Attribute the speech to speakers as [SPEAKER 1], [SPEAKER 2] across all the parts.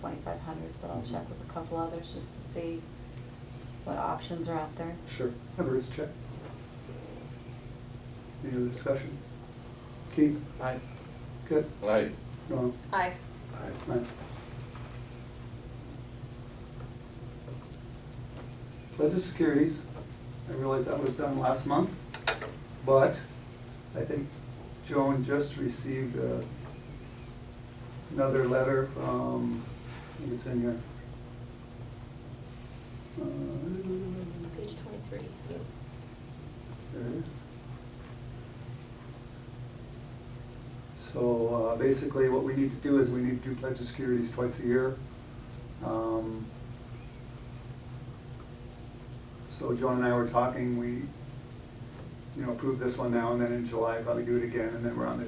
[SPEAKER 1] twenty-five hundred, but I'll check
[SPEAKER 2] Mhm.
[SPEAKER 1] with a couple others just to see what options are out there.
[SPEAKER 2] Sure. Have Bruce check. Any other discussion? Keith? Aye. Good.
[SPEAKER 3] Aye.
[SPEAKER 2] Norm?
[SPEAKER 1] Aye.
[SPEAKER 2] Aye. Pledge of securities, I realize that was done last month, but I think Joan just received uh, another letter from, I think it's in here. Uh,
[SPEAKER 4] Page twenty-three.
[SPEAKER 2] Okay. So uh, basically, what we need to do is we need to do pledge of securities twice a year. Um, So Joan and I were talking, we, you know, approve this one now, and then in July, probably do it again, and then we're on the,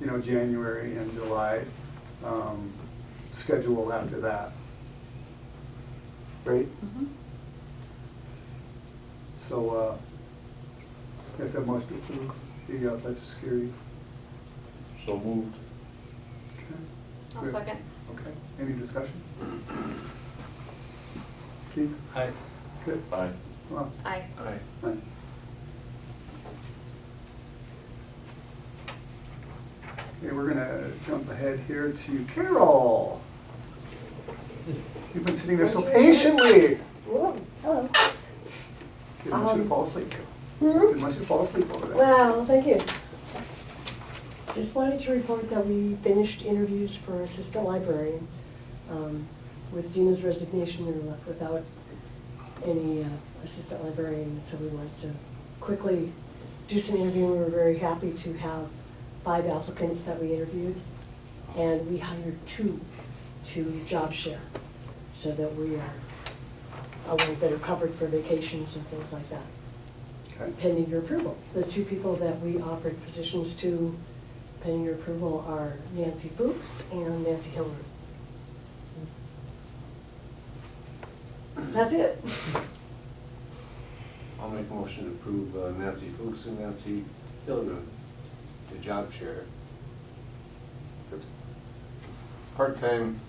[SPEAKER 2] you know, January and July um, schedule after that. Right?
[SPEAKER 1] Mhm.
[SPEAKER 2] So, uh, get that motion to approve the uh, pledge of securities.
[SPEAKER 3] So moved.
[SPEAKER 2] Okay.
[SPEAKER 4] I'll
[SPEAKER 2] Good.
[SPEAKER 4] second.
[SPEAKER 2] Okay, any discussion? Keith?
[SPEAKER 3] Aye.
[SPEAKER 2] Good.
[SPEAKER 3] Aye.
[SPEAKER 2] Well,
[SPEAKER 4] Aye.
[SPEAKER 3] Aye.
[SPEAKER 2] aye. Okay, we're gonna jump ahead here to Carol. You've been sitting there so patiently.
[SPEAKER 5] Whoa, hello.
[SPEAKER 2] Didn't want you to
[SPEAKER 5] Um,
[SPEAKER 2] fall asleep.
[SPEAKER 5] Mhm.
[SPEAKER 2] Didn't want you to fall asleep over there.
[SPEAKER 5] Well, thank you. Just wanted to report that we finished interviews for assistant librarian. Um, With Gina's resignation, we were left without any uh, assistant librarian, so we wanted to quickly do some interviewing. We were very happy to have five applicants that we interviewed, and we hired two to job share, so that we are a little better covered for vacations and things like that.
[SPEAKER 2] Okay.
[SPEAKER 5] pending your approval. The two people that we offered positions to pending your approval are Nancy Fuchs and Nancy Hillary. That's it.
[SPEAKER 6] I'll make a motion to approve uh, Nancy Fuchs and Nancy Hilliard to job share. for Part-time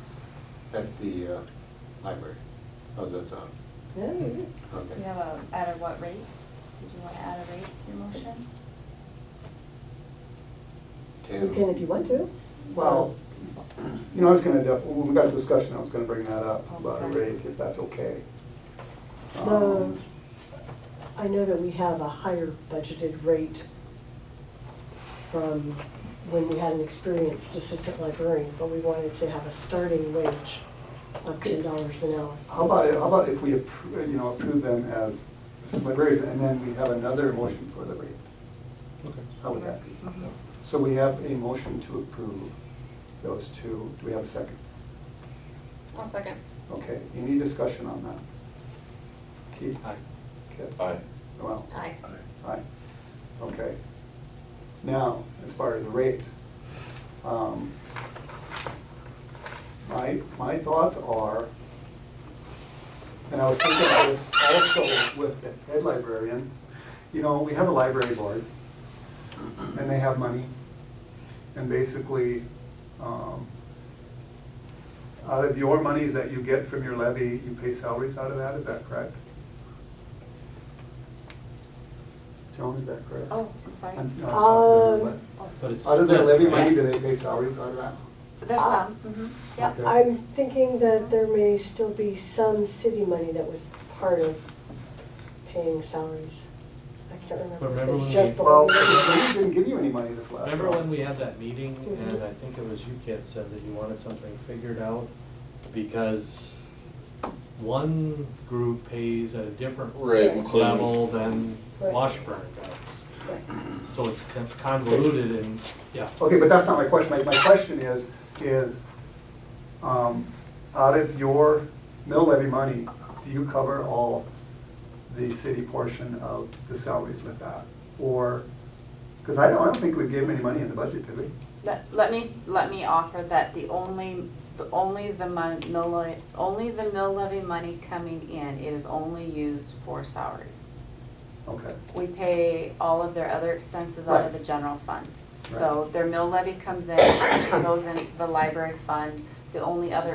[SPEAKER 6] at the uh, library. How's that sound?
[SPEAKER 5] Yeah, you're good.
[SPEAKER 1] Do you
[SPEAKER 6] Okay.
[SPEAKER 1] have a, at a what rate? Did you wanna add a rate to your motion?
[SPEAKER 5] You can if you want to.
[SPEAKER 2] Well, you know, I was gonna, def- when we got a discussion, I was gonna bring that up
[SPEAKER 1] Oh,
[SPEAKER 2] about a
[SPEAKER 1] sorry.
[SPEAKER 2] rate, if that's okay.
[SPEAKER 5] The,
[SPEAKER 2] Um,
[SPEAKER 5] I know that we have a higher budgeted rate from when we had an experienced assistant librarian, but we wanted to have a starting wage of ten dollars an hour.
[SPEAKER 2] How about, how about if we, appro- you know, approve them as assistant librarians, and then we have another motion for the rate?
[SPEAKER 3] Okay.
[SPEAKER 2] How would that be? So we have a motion to approve those two. Do we have a second?
[SPEAKER 4] I'll second.
[SPEAKER 2] Okay, any discussion on that? Keith? Aye. Kip?
[SPEAKER 3] Aye.
[SPEAKER 2] Well,
[SPEAKER 4] Aye.
[SPEAKER 2] Aye. Okay. Now, as far as the rate, um, my, my thoughts are, and I was thinking about this also with the head librarian, you know, we have a library board, and they have money, and basically, um, out of your monies that you get from your levy, you pay salaries out of that, is that correct? Joan, is that correct?
[SPEAKER 1] Oh, I'm sorry. Oh.
[SPEAKER 2] I'm- no, it's not really,
[SPEAKER 5] Um,
[SPEAKER 2] but Other than levy money, do they pay salaries out of that?
[SPEAKER 1] There's
[SPEAKER 5] Uh,
[SPEAKER 1] some, mhm,
[SPEAKER 5] Yeah,
[SPEAKER 1] yep.
[SPEAKER 2] Okay.
[SPEAKER 5] I'm thinking that there may still be some city money that was part of paying salaries. I can't
[SPEAKER 7] But
[SPEAKER 5] remember,
[SPEAKER 7] remember
[SPEAKER 5] it's
[SPEAKER 7] when
[SPEAKER 5] just
[SPEAKER 7] we-
[SPEAKER 5] the
[SPEAKER 2] Well,
[SPEAKER 5] one.
[SPEAKER 2] the city didn't give you any money this last year.
[SPEAKER 7] Remember when we had that meeting
[SPEAKER 5] Mhm.
[SPEAKER 7] and I think it was you kids said that you wanted something figured out? Because one group pays at a different
[SPEAKER 3] Right, McLean.
[SPEAKER 7] level than
[SPEAKER 5] Right.
[SPEAKER 7] Washburn does. So it's con- convoluted and, yeah.
[SPEAKER 2] Okay, but that's not my question. My, my question is, is, um, out of your mill levy money, do you cover all the city portion of the salaries with that? Or, because I don't, I don't think we gave them any money in the budget, did we?
[SPEAKER 1] Let, let me, let me offer that the only, the only the mon, mill levy, only the mill levy money coming in, it is only used for salaries.
[SPEAKER 2] Okay,
[SPEAKER 1] We pay all of their other expenses out of the general fund. So their mill levy comes in, goes into the library fund. The only other